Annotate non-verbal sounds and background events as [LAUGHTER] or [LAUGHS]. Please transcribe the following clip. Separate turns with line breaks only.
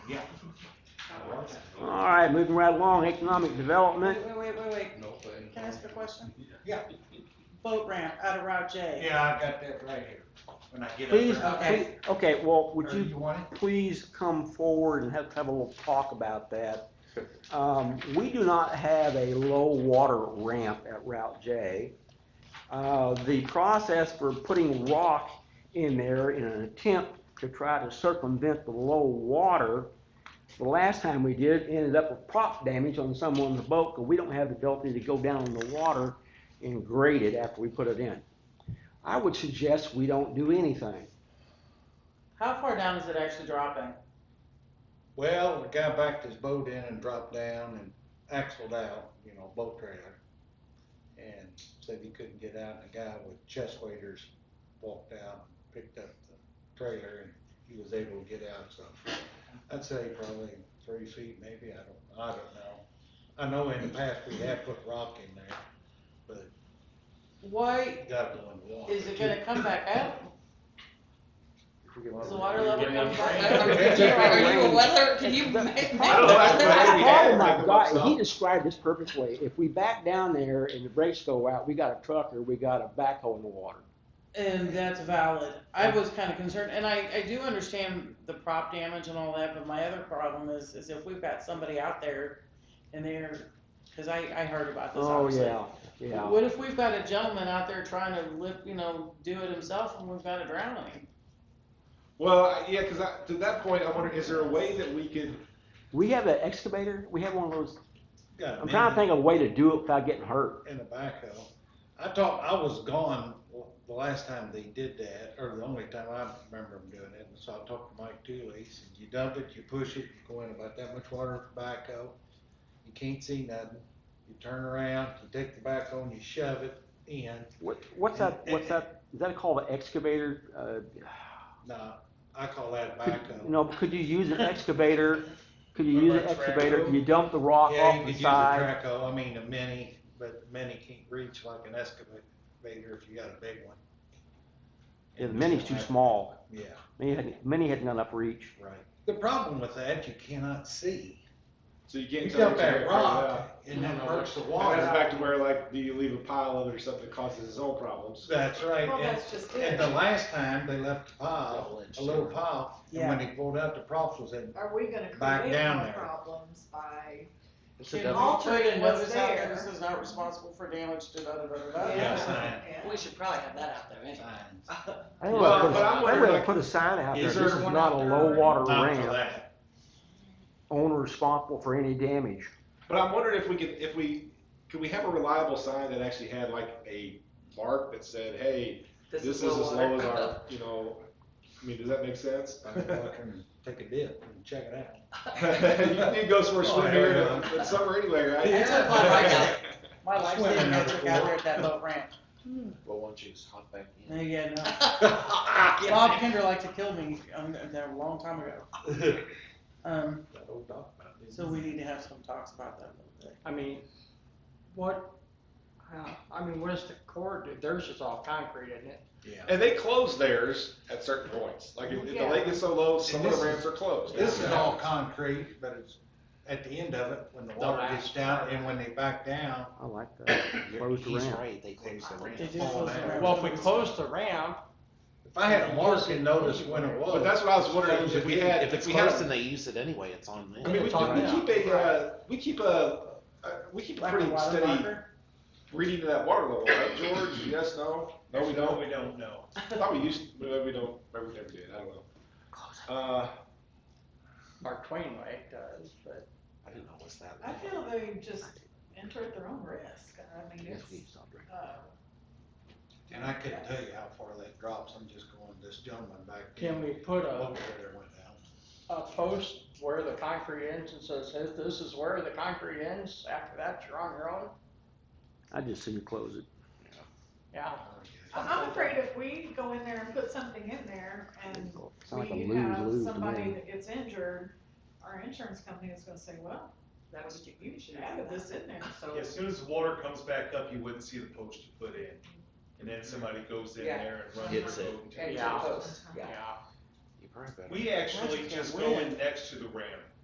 Yeah.
All right, moving right along, economic development.
Wait, wait, wait, wait, wait,
No, but-
can I ask a question?
Yeah,
Boat ramp out of Route J.
yeah, I got that right here, when I get up
Please,
there.
Okay.
please- okay, well,
Or
would
you
you
want
please come forward and have, have a little talk about that? Um, we do not have a low water ramp at Route J. Uh, the process for putting rock in there in an attempt to try to circumvent the low water, the last time we did, it ended up with prop damage on someone's boat, because we don't have the ability to go down in the water and grade it after we put it in. I would suggest we don't do anything.
How far down is it actually dropping?
Well, the guy backed his boat in and dropped down and axled out, you know, boat trailer. And said he couldn't get out, and the guy with chest waders walked out, and picked up the trailer, and he was able to get out, so. I'd say probably three feet, maybe, I don't, I don't know. I know in the past we have put rock in there, but
Why
you gotta go in the water.
is it gonna come back out? Is the water level
Getting
coming
up
back
there.
out?
Are
you a
weather,
[LAUGHS]
can you make?
I don't know.
[LAUGHS]
The problem I've got, and Oh he
Something.
described this perfectly, if we back down there and the brakes go out, we got a truck or we got a backhoe in the water.
And that's valid. I was kinda concerned, and I, I do understand the prop damage and all that, but my other problem is, is if we've got somebody out there and they're, cause I, I heard about this
Oh,
obviously.
yeah, yeah.
What if we've got a gentleman out there trying to lift, you know, do it himself and we've got a drowning?
Well, I- yeah, because to that point, I wonder, is there a way that we could,
We have an excavator, we have one of those,
Got a
I'm trying to think of a way to do it without getting hurt.
in a backhoe. I thought, I was gone the last time they did that, or the only time I remember them doing it, and so I talked to Mike Dooley, he said, you dump it, you push it, you go in about that much water with the backhoe, you can't see nothing, you turn around, you take the backhoe and you shove it in,
What, what's that, what's that, is that called an excavator?
now, I call that a
Uh, could-
backhoe.
you know, could you use an excavator? Could you
What
use an
about
excavator?
track?
You dump the rock
Yeah, you
off
could
the
use a
side?
traco, I mean a mini, but mini can't reach like an excavator if you got a big one.
Yeah, the mini's too small.
Yeah,
Many hadn't, many hadn't got enough reach.
right. The problem with that, you cannot see.
so you
You
can't tell
dump
what you're
that
gonna figure out?
rock and that hurts the
And that's back
water.
to where like, do you leave a pile of it or something that causes its own problems?
That's right.
Well,
And,
that's just
and
it.
the last time they left the pile, a little pile, and when
Yeah.
they pulled out the props was in.
Are we gonna
Back
create
down
more
there.
problems by,
it's a
Should
double-
we put a
Altering what's
notice out
there.
that this is not responsible for damage to da da da da da?
Yeah, sign,
yeah,
We should probably have that out there anyway.
sign.
I think
Well,
we ought to
but
put a-
I'm
I think
wondering,
we ought to
like-
put a sign out there,
Is
this
there
is
one
not a
out there
low water
Not for
ramp,
that.
owner responsible for any damage.
But I'm wondering if we could, if we, could we have a reliable sign that actually had like a mark that said, hey, this is as
low
low as
water.
our, you know, I mean, does that make [LAUGHS] sense?
I can walk in and Take a dip and check it out.
You go somewhere
Oh,
swim
hell
here
yeah.
in the summer anyway, right?
Yeah. That's what
[LAUGHS]
I like. My
That's
life
what
saving
another
metric out
one.
there at that boat ramp.
Well, why don't you just hop back in?
No, [LAUGHS] yeah, no. Bob Kinder liked to kill me, um, that a long time ago. Um,
That old dog mouth, isn't
so
it?
we need to have some talks about that a little bit.
I mean, what, uh, I mean, what does the court do? Theirs is all concrete, isn't it?
Yeah.
And they close theirs at certain points. Like if, if the lake is so low, some of
this
the
is-
ramps are closed.
This is all concrete, but it's at the end of it, when the water
Don't
gets down and when they back down.
I like that.
You're-
Close the
He's
ramp.
right, they close the ramp.
They do
fall
close the
down.
ramp.
Well, if we close the ramp,
If I had a mark and noticed when it was.
But that's what I was wondering, if we had,
If it's
if we had,
closed and
a-
they use it anyway, it's on them.
I mean, we,
Talking
we
now.
keep a, uh, we keep a, uh, we keep a
Like a
pretty
water
steady
locker?
reading of that water level, right, George? Yes, no? No, we don't?
We don't know.
I thought we used, we we don't, maybe we never did, I don't know. Uh,
[LAUGHS] Mark Twain way does, but
I didn't know what's that.
I feel they just enter at their own risk, I mean,
Yes, we
it's,
used on ramp.
uh,
And I couldn't tell you how far that drops, I'm just going, this gentleman back there.
can we uh, put a,
Over there went down.
a post where the concrete ends and says, "Hey, this is where the concrete ends, after that, you're on your own?
I just see you close it.
Yeah,
I'm afraid if we go in there and put something in there and
It's like a
we
lose
have
lose to
somebody
me.
that gets injured, our insurance company is gonna say, well, that was, you should have this in there, so.
As soon as the water comes back up, you wouldn't see the post you put in, and then somebody goes in
Yeah.
there and runs
Hits
their
it.
boat.
And
Yeah.
so-
yeah.
You
probably better.
We actually just go in next to the ramp.